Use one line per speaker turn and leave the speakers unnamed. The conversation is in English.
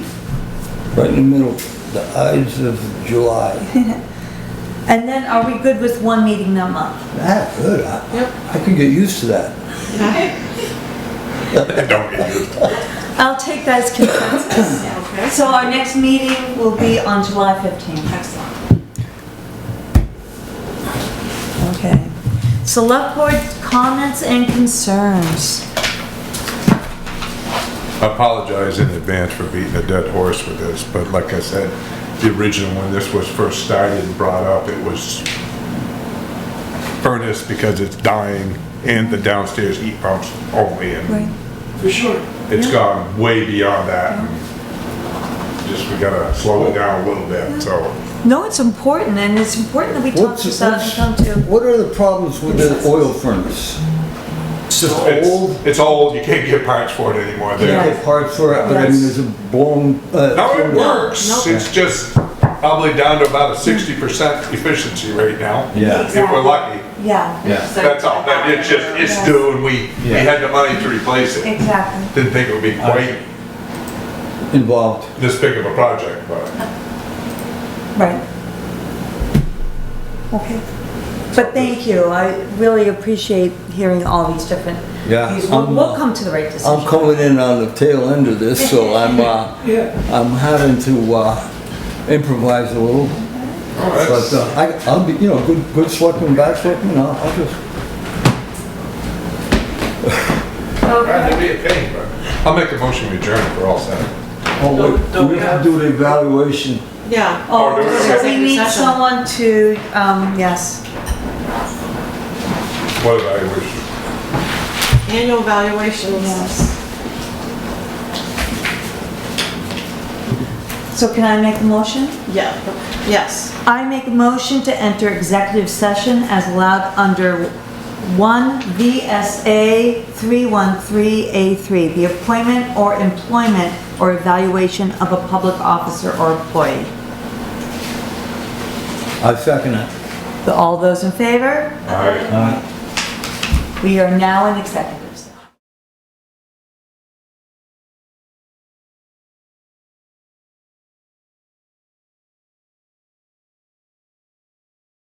right in the middle, the eyes of July.
And then are we good with one meeting a month?
That good. I,
Yep.
I could get used to that.
Don't get used to it.
I'll take that as consensus.
Okay.
So our next meeting will be on July 15th.
Excellent.
Okay. Select board comments and concerns.
I apologize in advance for beating a dead horse with this, but like I said, the original, when this was first started and brought up, it was furnace because it's dying and the downstairs heat pumps only, and
For sure.
it's gone way beyond that. and Just, we gotta slow it down a little bit, so.
No, it's important, and it's important that we talk
What's-
this out and
what's-
come to.
What are the problems with the oil furnace?
It's just,
old.
it's, it's old, you can't get parts for it anymore
You
there.
can get parts for it, but I mean, there's a blown, uh.
No, it
cylinder.
works,
Nope.
it's just probably down to about a sixty percent efficiency right now.
Yeah.
If we're lucky.
Yeah,
Yeah.
That's all, that, it's just, it's due and we, we had the money to replace it.
exactly.
Didn't think it would be quite
Involved.
this big of a project, but
Right. Okay. But thank you. I really appreciate hearing all these different.
Yeah,
views. We'll,
I'm,
we'll
uh,
come to the right decision.
I'm coming in on the tail end of this, so I'm, uh, I'm having to, uh, improvise a little. But, uh, I, I'll be, you know, good, good selectman, bad selectman, I'll, I'll just,
that'd be a pain, but I'll make a motion to adjourn for all seven.
oh, wait,
Don't-
we
don't
have to do the evaluation.
Yeah.
Oh,
Or do it.
so we need someone to, um, yes,
What did I wish?
Annual evaluations.
yes. So can I make a motion?
Yeah, yes.
I make a motion to enter executive session as allowed under 1 VSA 313A3, the appointment or employment or evaluation of a public officer or employee.
I second it.
All those in favor?
All right.
All right.
We are now in executive.